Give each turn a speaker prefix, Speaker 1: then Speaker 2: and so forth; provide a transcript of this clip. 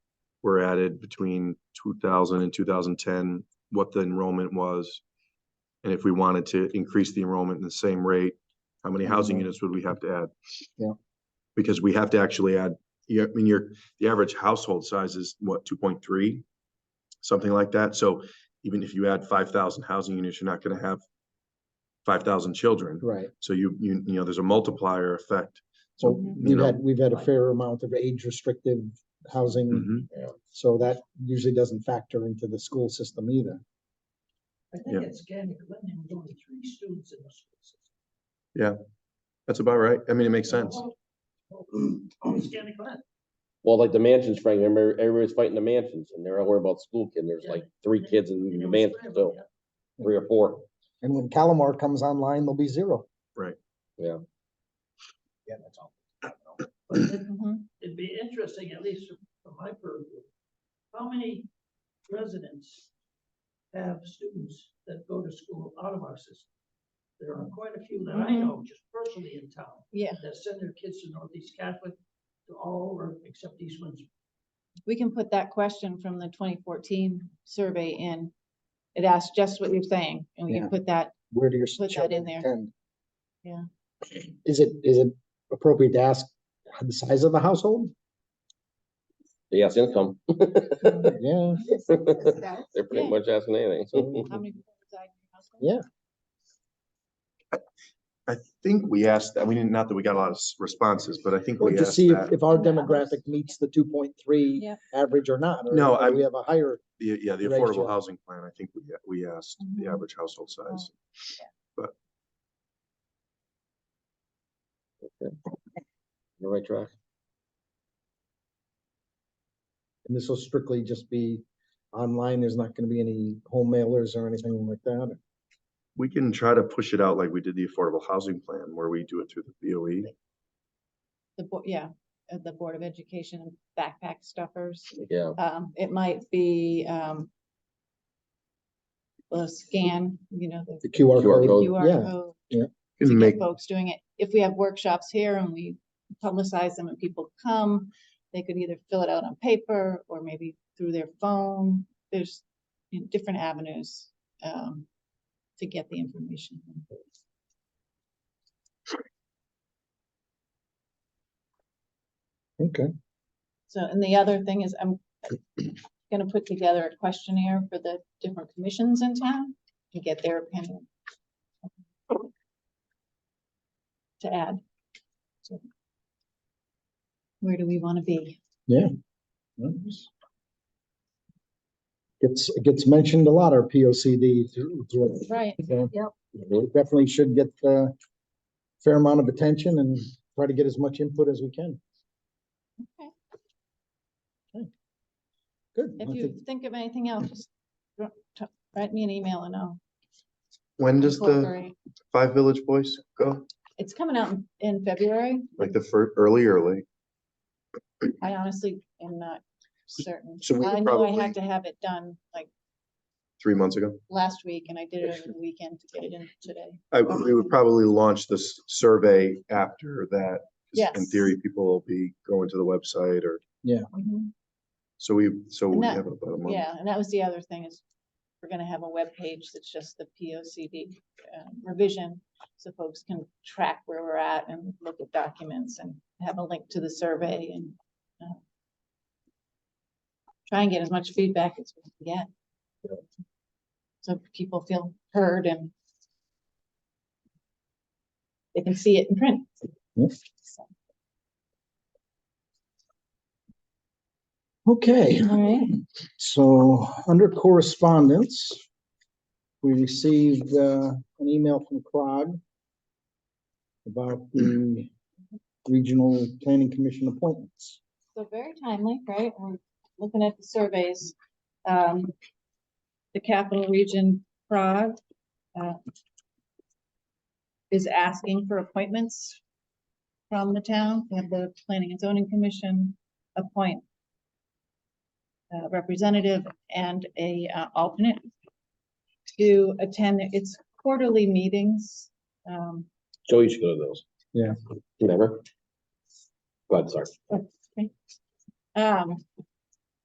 Speaker 1: were added between 2000 and 2010, what the enrollment was. And if we wanted to increase the enrollment in the same rate, how many housing
Speaker 2: Mhm.
Speaker 1: units would we have to add?
Speaker 2: Yeah.
Speaker 1: Because we have to actually add, yeah, I mean, your, the average household size is what, two point three? Something like that. So even if you add five thousand housing units, you're not gonna have five thousand children.
Speaker 2: Right.
Speaker 1: So you, you, you know, there's a multiplier effect.
Speaker 2: So
Speaker 1: So,
Speaker 3: Mm-hmm.
Speaker 1: you
Speaker 2: we've
Speaker 1: know,
Speaker 2: had, we've had a fair amount of age restrictive housing.
Speaker 1: mhm.
Speaker 2: So that usually doesn't factor into the school system either.
Speaker 4: I
Speaker 1: Yeah.
Speaker 4: think it's getting, let me do three students in the school system.
Speaker 1: that's about right. I mean, it makes sense.
Speaker 4: Oh, It's getting bad.
Speaker 5: Well, like the mansions, Frank, remember everybody's fighting the mansions and they're all worried about school kids. There's like three kids in
Speaker 4: Mm-hmm.
Speaker 5: the mansion, so three or four.
Speaker 2: And when Calamar comes online, there'll be zero.
Speaker 6: Yeah, that's all.
Speaker 4: But it-
Speaker 3: Mm-hmm.
Speaker 4: It'd be interesting, at least from my purview, how many residents have students that go to school out of our system? There are quite a few that I know, just personally in town.
Speaker 3: Yeah.
Speaker 4: That send their kids to Northeast Catholic, to all over, except East Windsor.
Speaker 3: We can put that question from the twenty fourteen survey in. It asks just what you're saying, and we
Speaker 2: Yeah.
Speaker 3: can put that,
Speaker 2: Where do your
Speaker 3: Put that
Speaker 2: children
Speaker 3: in there.
Speaker 2: attend?
Speaker 3: Yeah.
Speaker 2: Is it, is it appropriate to ask the size of the household?
Speaker 5: They ask income.
Speaker 2: Yeah,
Speaker 5: They're pretty
Speaker 3: Yeah.
Speaker 5: much asking anything. So
Speaker 3: how many? people reside in your household?
Speaker 2: Yeah.
Speaker 1: I think we asked that, we didn't, not that we got a lot of s- responses, but I think
Speaker 2: or
Speaker 1: we
Speaker 2: just
Speaker 1: asked
Speaker 2: see if,
Speaker 1: that.
Speaker 2: if our demographic meets the two point three
Speaker 3: Yeah.
Speaker 2: average or not. or
Speaker 1: No,
Speaker 2: if
Speaker 1: I'm-
Speaker 2: We have a higher,
Speaker 1: the- Yeah, the
Speaker 2: ratio.
Speaker 1: affordable housing plan, I think we, uh, we asked the
Speaker 3: Mhm.
Speaker 1: average household size.
Speaker 5: you're right track.
Speaker 2: and this will strictly just be online. There's not gonna be any home mailers or anything like that.
Speaker 1: We can try to push it out like we did the affordable housing plan where we do it through the E. BOE.
Speaker 3: The, Bo- yeah, uh, the Board of Education backpack stuffers.
Speaker 5: Yeah.
Speaker 3: Um, it might be, um, a scan, you know, the
Speaker 2: The QR
Speaker 5: QR
Speaker 2: code.
Speaker 5: code.
Speaker 3: QR
Speaker 2: yeah.
Speaker 3: code,
Speaker 1: We Can make,
Speaker 3: get folks doing it. If we have workshops here and we publicize them and people come, they could either fill it out on paper or maybe through their phone. There's you know, different avenues, um, to get the information.
Speaker 2: Okay.
Speaker 3: So, and the other thing is I'm gonna put together a questionnaire for the different commissions in town to get their opinion. To add. So, Where do we wanna be?
Speaker 2: Nice. Gets, it gets mentioned a lot, our P O C D.
Speaker 3: Right.
Speaker 5: Mhm.
Speaker 2: Definitely should get a fair amount of attention and try to get as much input as we can.
Speaker 3: Okay.
Speaker 2: Okay. Good. I
Speaker 3: If
Speaker 2: think-
Speaker 3: you think of anything else, just dr- t- write me an email and I'll.
Speaker 1: when does the
Speaker 3: incorporate.
Speaker 1: Five Village Voice go?
Speaker 3: It's coming out in- in February.
Speaker 1: Like the fir- early, early?
Speaker 3: I honestly am not certain.
Speaker 1: So we
Speaker 3: I
Speaker 1: could
Speaker 3: knew I
Speaker 1: probably,
Speaker 3: had to have it done like
Speaker 1: three months ago,
Speaker 3: last week and I did it over the weekend to get it in today.
Speaker 1: I, we
Speaker 3: Um.
Speaker 1: would probably launch this survey after that. 'cause In
Speaker 3: Yes.
Speaker 1: theory, people will be going to the website or, Mm-hmm.
Speaker 3: Mhm.
Speaker 1: so we, so
Speaker 3: And
Speaker 1: we
Speaker 3: that-
Speaker 1: have about a month.
Speaker 3: Yeah, and that was the other thing is we're gonna have a web page that's just the P O C D um, revision. So folks can track where we're at and look at documents and have a link to the survey and uh, try and get as much feedback as we can get. So people feel heard and they can see it in print.
Speaker 2: Yes.
Speaker 3: So,
Speaker 2: Okay,
Speaker 3: All right.
Speaker 2: so under correspondence, we received uh, an email from CROG about the regional planning commission appointments.
Speaker 3: So very timely, right? We're looking at the surveys. Um, the capital region Prague, uh, is asking for appointments from the town, We have the planning and zoning commission appoint a representative and a uh, alternate to attend its quarterly meetings. Um,
Speaker 5: Joey should go to those.
Speaker 2: Yeah.
Speaker 5: Remember? Go ahead, sorry.
Speaker 3: oh, Um,